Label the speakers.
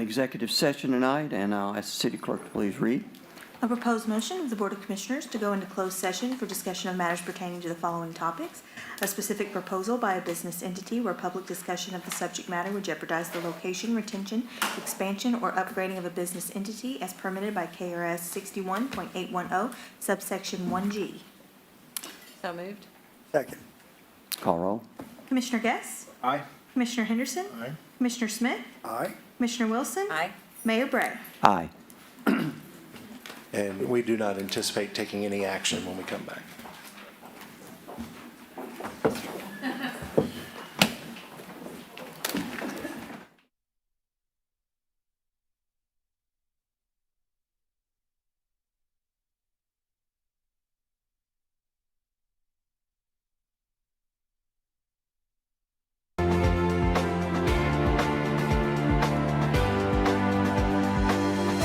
Speaker 1: executive session tonight, and I'll ask the city clerk to please read.
Speaker 2: A proposed motion of the Board of Commissioners to go into closed session for discussion of matters pertaining to the following topics. A specific proposal by a business entity where public discussion of the subject matter would jeopardize the location, retention, expansion, or upgrading of a business entity as permitted by KRS sixty-one point eight one oh subsection one G.
Speaker 3: So moved.
Speaker 4: Second.
Speaker 1: Call roll.
Speaker 2: Commissioner Guess?
Speaker 4: Aye.
Speaker 2: Commissioner Henderson?
Speaker 4: Aye.
Speaker 2: Commissioner Smith?
Speaker 4: Aye.
Speaker 2: Commissioner Wilson?
Speaker 3: Aye.
Speaker 2: Mayor Bray?
Speaker 1: Aye.
Speaker 5: And we do not anticipate taking any action when we come back.